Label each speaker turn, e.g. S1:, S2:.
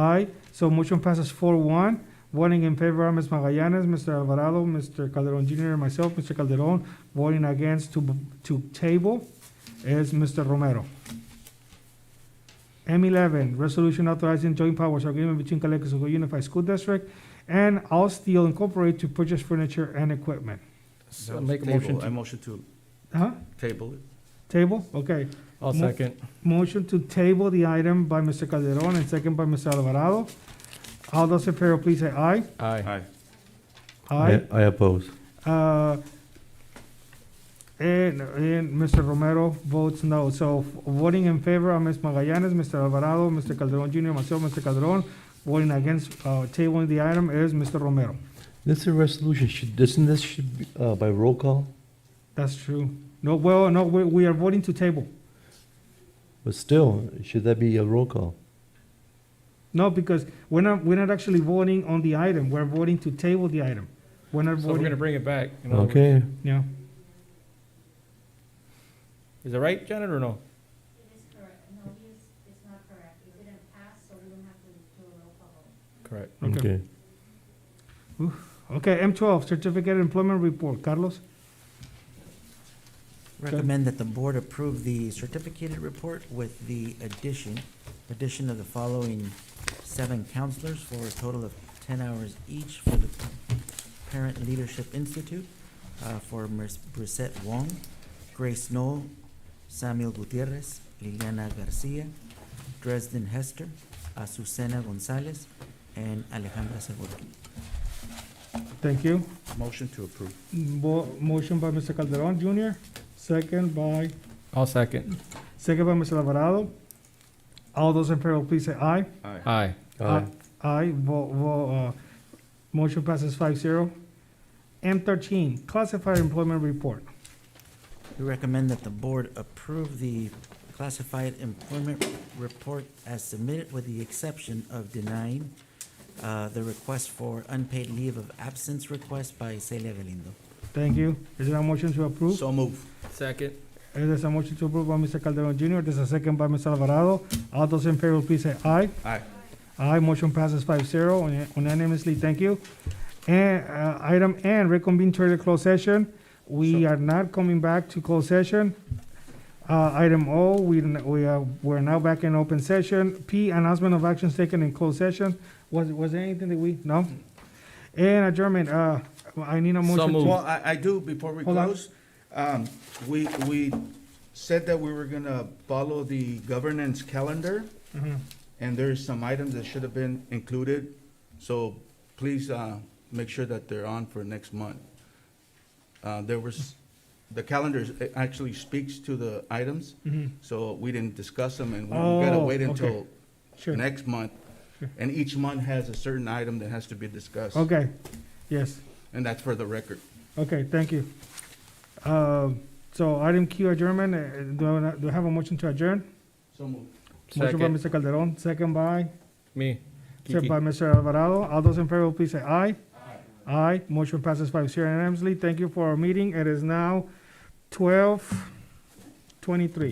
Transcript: S1: Aye, so motion passes four one. Voting in favor are Ms. Magallanes, Mr. Alvarado, Mr. Calderon Junior, and myself, Mr. Calderon. Voting against to, to table is Mr. Romero. M eleven, resolution authorizing joint powers agreement between Calexico Unified School District and All Steel Incorporated to purchase furniture and equipment.
S2: So
S3: That was
S2: make a
S3: table.
S2: motion to-
S3: I motion to
S1: Huh?
S3: table it.
S1: Table? Okay.
S2: I'll
S1: Mo-
S2: second.
S1: Motion to table the item by Mr. Calderon and second by Mr. Alvarado. All those in favor, please say aye.
S2: Aye.
S3: Aye.
S1: Aye.
S4: I oppose.
S1: Uh, And, and Mr. Romero votes no. So voting in favor are Ms. Magallanes, Mr. Alvarado, Mr. Calderon Junior, myself, Mr. Calderon. Voting against, uh, tabling the item is Mr. Romero.
S4: This is a resolution, should, doesn't this should be, uh, by roll call?
S1: That's true. No, well, no, we, we are voting to table.
S4: But still, should that be a roll call?
S1: No, because we're not, we're not actually voting on the item. We're voting to table the item. We're not
S2: So we're gonna
S1: voting,
S2: bring it back. in other words.
S4: Okay,
S1: yeah.
S2: Is that right, Janet, or no? Correct.
S1: Okay.
S4: okay.
S1: Okay, M twelve, certificate of employment report. Carlos?
S5: Recommend that the board approve the certificated report with the addition, addition of the following seven counselors for a total of ten hours each for the Parent Leadership Institute, uh, for Ms. Brissette Wong, Grace Knoll, Samuel Gutierrez, Liliana Garcia, Dresden Hester, Azucena Gonzalez, and Alejandra Segura.
S1: Thank you.
S3: Motion to approve.
S1: Mo- Motion by Mr. Calderon Junior, second by,
S2: I'll second.
S1: second by Mr. Alvarado. All those in favor, please say aye.
S3: Aye.
S2: Aye.
S4: Aye.
S1: Aye, vo, vo, uh, motion passes five zero. M thirteen, classified employment report.
S5: We recommend that the board approve the classified employment report as submitted with the exception of denying uh, the request for unpaid leave of absence request by Celia Galindo.
S1: Thank you. Is there a motion to approve?
S3: So move.
S2: Second.
S1: Uh, There's a motion to approve by Mr. Calderon Junior, there's a second by Mr. Alvarado. All those in favor, please say aye.
S3: Aye.
S1: Aye, motion passes five zero unanimously, thank you. And, uh, item N, reconvene to the closed session. We are not coming back to closed session. Uh, item O, we, n- we are, we're now back in open session. P, announcement of actions taken in closed session. Was, was there anything that we, no? And adjournment, uh, I need a
S2: So
S1: motion.
S2: moved.
S1: to-
S3: Well, I, I do, before we
S1: Hold on.
S3: close, um, we, we said that we were gonna follow the governance calendar,
S2: Mm-hmm.
S1: Mhm.
S3: and there's some items that should have been included, so please, uh, make sure that they're on for next month. Uh, there was, the calendar is- it actually speaks to the items,
S2: Mm-hmm.
S1: Mhm.
S3: so we didn't discuss them, and we gotta
S1: Oh,
S3: wait
S1: okay.
S3: until
S1: Sure.
S3: next month.
S1: Sure.
S3: And each month has a certain item that has to be discussed,
S1: Okay, yes.
S3: and that's for the record.
S1: Okay, thank you. Uh, So item Q adjournment, uh, do I do I have a motion to adjourn?
S3: So moved.
S1: Motion by
S2: Second.
S1: Mr. Calderon, second by,
S2: Me.
S1: second
S2: Kiki.
S1: by Mr. Alvarado. All those in favor, please say aye. Aye, motion passes five zero unanimously. Thank you for our meeting. It is now twelve twenty-three.